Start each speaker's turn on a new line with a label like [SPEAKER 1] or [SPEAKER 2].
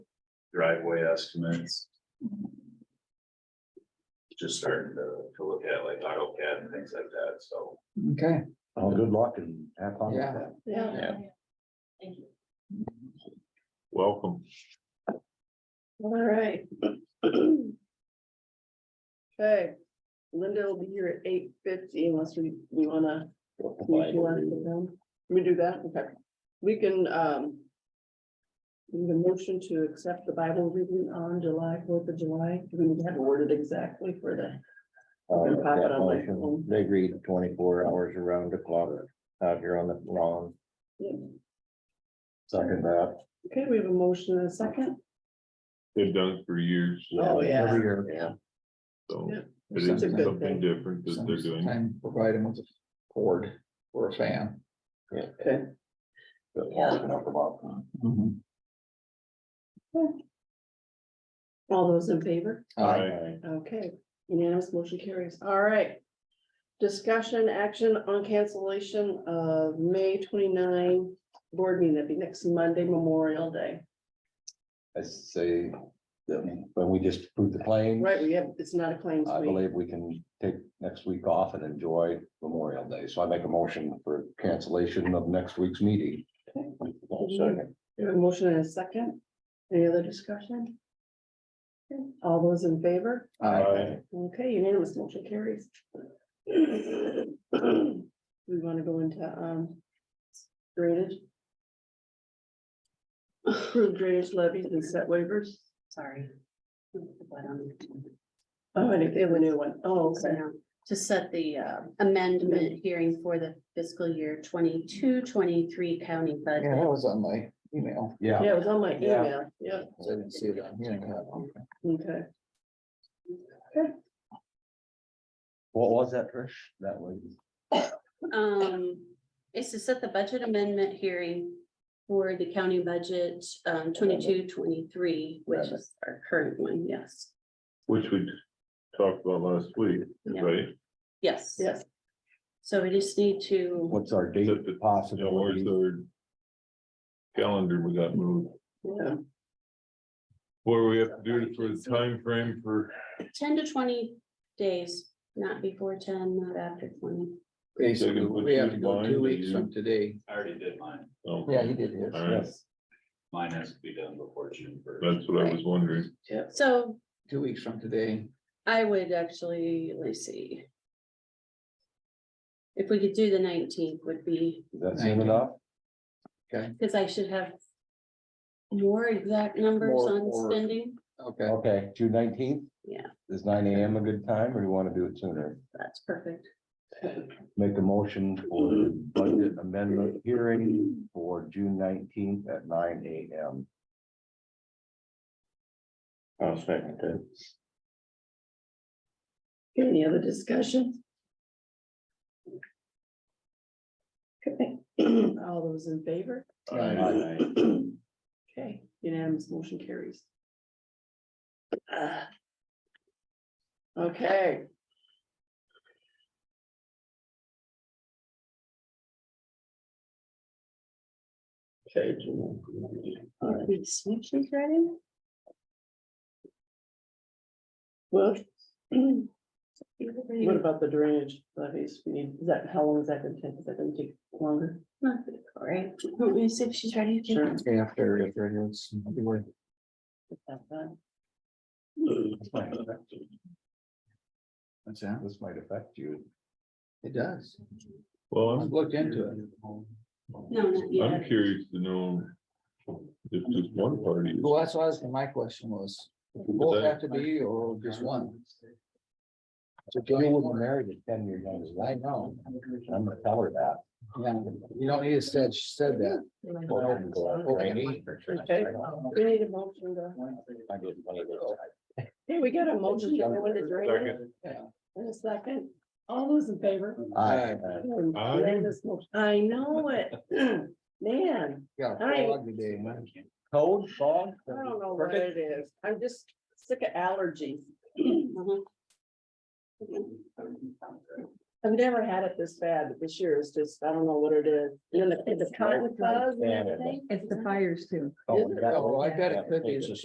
[SPEAKER 1] driveway estimates. Just starting to, to look at like AutoCAD and things like that, so.
[SPEAKER 2] Okay,
[SPEAKER 3] Oh, good luck and have fun. with
[SPEAKER 2] Yeah.
[SPEAKER 3] that.
[SPEAKER 4] Yeah.
[SPEAKER 5] Yeah.
[SPEAKER 4] Thank you.
[SPEAKER 1] Welcome.
[SPEAKER 5] All right. Okay, Linda will be here at eight fifty unless we, we wanna, we wanna sit down. we do that, okay, we can, um. We have a motion to accept the Bible reading on July, Fourth of July, do we need to have it worded exactly for the?
[SPEAKER 6] Uh,
[SPEAKER 5] And pop it
[SPEAKER 6] that
[SPEAKER 5] on my
[SPEAKER 6] motion,
[SPEAKER 5] phone.
[SPEAKER 6] They read twenty-four hours around the clock out here on the lawn, second that.
[SPEAKER 5] Okay, we have a motion and a second.
[SPEAKER 7] They've done it for years,
[SPEAKER 5] Oh, yeah.
[SPEAKER 3] Every year.
[SPEAKER 5] Yeah.
[SPEAKER 7] so
[SPEAKER 5] Yeah.
[SPEAKER 7] it is
[SPEAKER 2] It's a good
[SPEAKER 7] something
[SPEAKER 5] thing.
[SPEAKER 7] different that they're doing.
[SPEAKER 2] sometime provide them with a cord or a fan.
[SPEAKER 5] Okay.
[SPEAKER 6] but long enough about
[SPEAKER 7] Mm-hmm.
[SPEAKER 5] All those in favor?
[SPEAKER 2] Uh,
[SPEAKER 5] Okay, unanimous motion carries. All right. Discussion action on cancellation of May 29 board meeting. That'd be next Monday, Memorial Day.
[SPEAKER 6] I say, that when we just approved the claim,
[SPEAKER 5] Right, we have, it's not a claims
[SPEAKER 6] I
[SPEAKER 5] week.
[SPEAKER 6] believe we can take next week off and enjoy Memorial Day. So I make a motion for cancellation of next week's meeting. Second.
[SPEAKER 5] We have a Motion and a second. Any other discussion? Okay, All those in favor?
[SPEAKER 2] I
[SPEAKER 5] Okay, unanimous motion carries. We want to go into, um, drainage. Approve drainage levies and set waivers.
[SPEAKER 4] Sorry.
[SPEAKER 5] Oh, I think they have a new one. Oh, okay.
[SPEAKER 4] To set the uh, amendment hearing for the fiscal year 22-23 county
[SPEAKER 2] Yeah,
[SPEAKER 4] budget.
[SPEAKER 2] that was on my email.
[SPEAKER 6] Yeah,
[SPEAKER 5] Yeah, it was on my
[SPEAKER 2] Yeah.
[SPEAKER 5] email. Yeah,
[SPEAKER 2] I didn't see it on here.
[SPEAKER 5] okay.
[SPEAKER 6] what was that, Trish? That was,
[SPEAKER 4] Um, it's to set the budget amendment hearing for the county budget, um, 22-23, which is our current one, yes.
[SPEAKER 7] Which we talked about last week,
[SPEAKER 4] Yeah.
[SPEAKER 7] right?
[SPEAKER 4] Yes.
[SPEAKER 5] Yes.
[SPEAKER 4] So we just need to,
[SPEAKER 6] what's our date
[SPEAKER 7] Except that, you know, where's
[SPEAKER 2] Mm-hmm.
[SPEAKER 6] possibility?
[SPEAKER 7] the Calendar we got moved.
[SPEAKER 5] Yeah.
[SPEAKER 7] What do we have to do for the time frame for,
[SPEAKER 4] ten to twenty days, not before ten, not after twenty.
[SPEAKER 2] Basically,
[SPEAKER 7] put
[SPEAKER 2] we have
[SPEAKER 7] you
[SPEAKER 2] to
[SPEAKER 7] in
[SPEAKER 2] go
[SPEAKER 7] line,
[SPEAKER 2] two
[SPEAKER 7] do
[SPEAKER 2] weeks
[SPEAKER 7] you-
[SPEAKER 2] from today.
[SPEAKER 1] I already did mine.
[SPEAKER 7] oh,
[SPEAKER 2] Yeah, he did
[SPEAKER 7] all right,
[SPEAKER 2] his.
[SPEAKER 1] Mine has to be done before June first.
[SPEAKER 7] that's what I was wondering.
[SPEAKER 4] So
[SPEAKER 2] Two weeks from today.
[SPEAKER 4] I would actually, let's see. If we could do the nineteenth would be,
[SPEAKER 6] Does that seem enough?
[SPEAKER 4] because I should have. More exact numbers
[SPEAKER 2] More-
[SPEAKER 4] on
[SPEAKER 2] more.
[SPEAKER 4] spending,
[SPEAKER 2] Okay,
[SPEAKER 6] Okay, June nineteenth?
[SPEAKER 4] Yeah.
[SPEAKER 6] Is nine AM a good time or you want to do it sooner?
[SPEAKER 4] that's perfect.
[SPEAKER 6] Make a motion for the budget amendment hearing for June nineteenth at nine AM. I'll second that.
[SPEAKER 5] Any other discussion? Okay, all those in favor? Okay, unanimous motion carries. Ah. Okay. Okay.
[SPEAKER 4] Are we switching Friday?
[SPEAKER 5] Well, what
[SPEAKER 4] What about-
[SPEAKER 5] about the drainage levies? We need, is that, how long is that gonna take? Is that gonna take longer?
[SPEAKER 4] All right, let me see if she's ready.
[SPEAKER 5] Sure.
[SPEAKER 2] after, after anyone's.
[SPEAKER 5] About that.
[SPEAKER 2] What's that?
[SPEAKER 6] This might affect you.
[SPEAKER 2] It does.
[SPEAKER 7] Well,
[SPEAKER 2] I've
[SPEAKER 7] I'm,
[SPEAKER 2] looked into it.
[SPEAKER 4] No, not
[SPEAKER 7] I'm
[SPEAKER 4] yet.
[SPEAKER 7] curious to know if just one party is
[SPEAKER 2] Well, that's why I was- my question was, both have to be or just one?
[SPEAKER 6] So Johnny was married at ten years young.
[SPEAKER 2] I know.
[SPEAKER 6] I'm gonna tell her that.
[SPEAKER 2] Yeah, you don't need to said, she said that.
[SPEAKER 5] Okay, we need a motion to.
[SPEAKER 6] I get one of those.
[SPEAKER 5] Hey, we got a motion. to go into drainage.
[SPEAKER 7] Second.
[SPEAKER 2] Yeah.
[SPEAKER 5] In a second. All those in favor?
[SPEAKER 6] Aye.
[SPEAKER 7] Aye.
[SPEAKER 5] Unanimous motion. I know it. Man,
[SPEAKER 2] Yeah.
[SPEAKER 5] Aye.
[SPEAKER 2] frog today, man.
[SPEAKER 6] Cold, fog.
[SPEAKER 5] I don't know what it is. I'm just sick of allergies.
[SPEAKER 4] Mhm.
[SPEAKER 5] I've never had it this bad, but this year is just, I don't know what it is. And then the- the cotton
[SPEAKER 6] Smells like
[SPEAKER 5] fuzz and
[SPEAKER 6] Canada.
[SPEAKER 5] everything.
[SPEAKER 8] It's the fires too.
[SPEAKER 6] Oh, we got-
[SPEAKER 2] Oh, I bet it could be.
[SPEAKER 6] It's a